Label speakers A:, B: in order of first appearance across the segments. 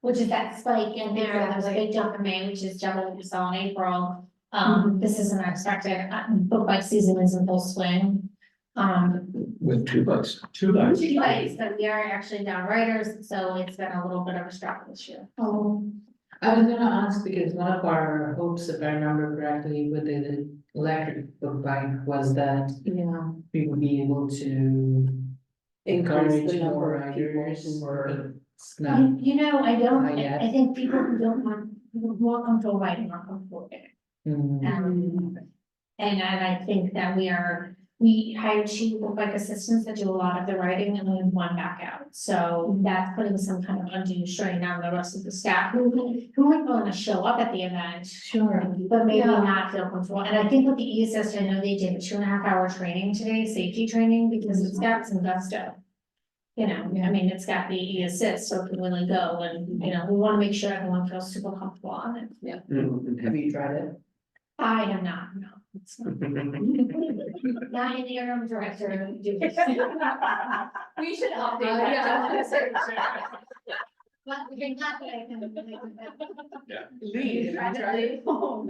A: Which is that spike in there, and there's a big jump in May, which is double what we saw in April.
B: Mm-hmm.
A: Um, this isn't expected, uh, book bike season is in full swing. Um,
C: with two bucks.
D: Two bucks.
A: two bikes, but we are actually down riders, so it's been a little bit of a struggle this year.
B: Oh,
E: I was gonna ask because one of our hopes, if I remember correctly, with the electric book bike was that
B: yeah.
E: we would be able to.
B: Increase the
E: encourage more
B: number of people
E: riders
B: who are.
E: or it's
A: I-
E: not-
A: You know, I don't,
E: Not
A: I,
E: yet.
A: I think people who don't want, who are more comfortable riding are comfortable in it.
E: Mm,
A: Um, and I, I think that we are, we hired two look like assistants that do a lot of the riding and we have one back out. So that's putting some kind of undue strain on the rest of the staff who, who might want to show up at the event.
B: Sure.
A: But maybe
B: Yeah.
A: not feel comfortable, and I think with the ESS, I know they did a two and a half hour training today, safety training, because it's got some gusto. You know, I mean, it's got the ESS, so it can really go, and, you know, we wanna make sure everyone feels super comfortable on it.
E: Have you tried it?
A: I am not, no, it's not, not in the interim director, who do this. We should update that. But you're not gonna, I
E: Lee, have you tried it?
B: Oh,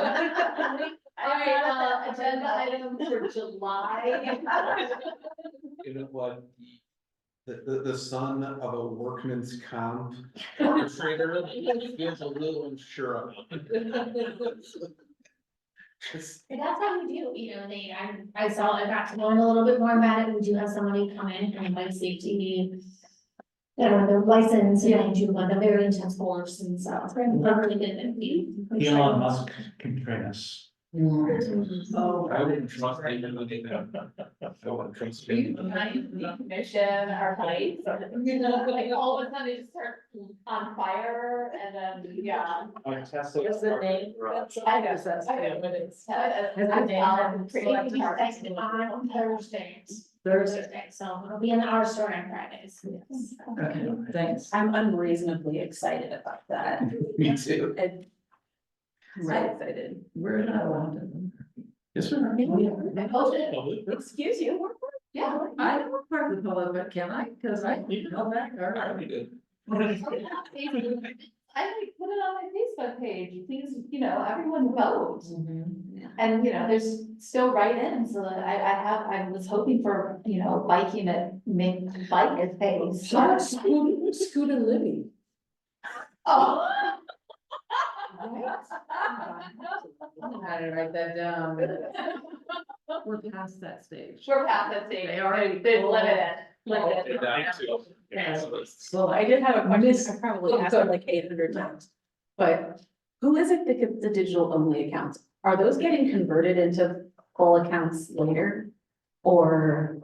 B: All right, uh, agenda item for Oh. July.
D: You know what? The, the, the son of a workman's comp. Trigger, feels a little unsure of. it. Just-
A: And that's how we do, you know, they, I, I saw, I got to learn a little bit more about it, we do have somebody come in from like safety. That are their license and they do like a very intense course and so it's very, really good and we.
F: Elon Musk can train us.
E: Mm.
B: Oh.
D: I wouldn't trust anybody that. I wouldn't trust
B: You
D: him.
B: might decommission our lights, or, you know, like all of a sudden they just start on fire and then, yeah.
F: Oh, Tesla.
B: What's the name? I know, that's, I know what it's.
A: It's like on Thursdays, Thursday, so it'll be in our store on Fridays.
E: Okay, thanks.
B: I'm unreasonably excited about that.
D: Me too.
B: Really excited.
E: We're not allowed to. Oh,
D: Yes, sir. Oh,
B: I hope it-
D: Public.
B: Excuse you, we're- yeah,
E: I don't work part of the public, but can I? Cause I
D: You
E: go back
D: I
E: or.
D: already did.
B: I like put it on my Facebook page, please, you know, everyone vote.
E: Mm-hmm.
B: And, you know, there's still write-ins, so I, I have, I was hoping for, you know, biking at, make bike at pace.
E: Scoot, scoot and Libby.
B: Oh.
E: I'm gonna write that down. We're past that stage.
B: We're past that stage.
E: They already-
B: They limit it,
D: Oh,
B: limit
D: did
B: it.
D: that too. Yeah.
E: Well, I
G: did have a
E: Miss-
G: question, I probably
E: Oh,
G: asked
E: go
G: it like eight hundred times, but who is it that gets the digital only accounts? Are those getting converted into full accounts later? Or,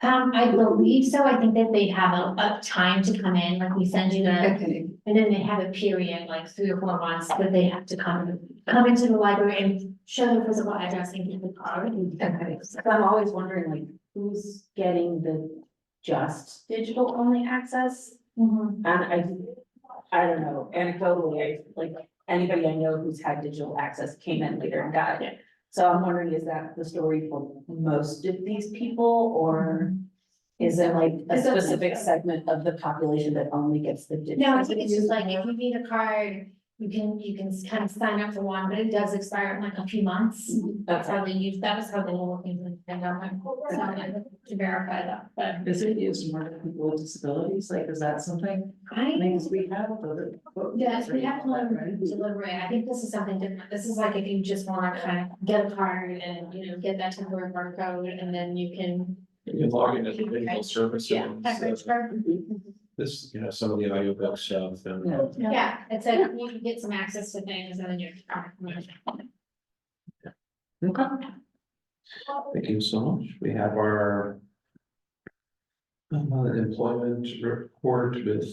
A: Um, I believe so, I think that they have a, a time to come in, like we send you the
G: okay,
A: And then they have a period, like three or four months, that they have to come, come into the library and show their physical address and get the card.
G: okay, so I'm always wondering like, who's getting the just digital only access?
A: Mhm.
G: And I, I don't know, anecdotally, like, anybody I know who's had digital access came in later and got it. So I'm wondering, is that the story for most of these people, or is it like a
B: It's a-
G: specific segment of the population that only gets the digital?
A: No, I think it's just like, if you need a card, you can, you can kind of sign up for one, but it does expire in like a few months. That's
G: Okay.
A: how they use, that was how they were working with the pandemic, so I had to verify that, but.
E: Is it used more for people with disabilities? Like, is that something,
A: I,
E: things we have? other-
A: yes, we have to learn
E: Right?
A: delivery, I think this is something different, this is like if you just wanna kind of get a card and, you know, get that temporary barcode, and then you can.
D: You can log in as a digital service. and, uh, This, you know, some of the audiobooks uh, stuff
E: Yeah.
D: and.
A: Yeah, it's a, you can get some access to things and then you're.
D: Okay. Thank you so much. We have our uh, employment report with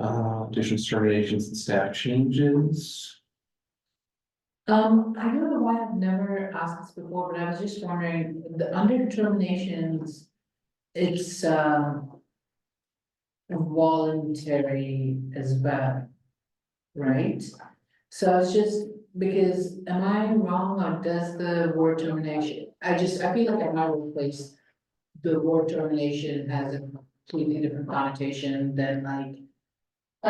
D: uh, additions, terminations, and staff changes.
E: Um, I don't know why I've never asked this before, but I was just wondering, the under determinations, it's um voluntary as well, right? So I was just, because am I wrong or does the word termination, I just, I feel like I might replace the word termination as a completely different connotation than like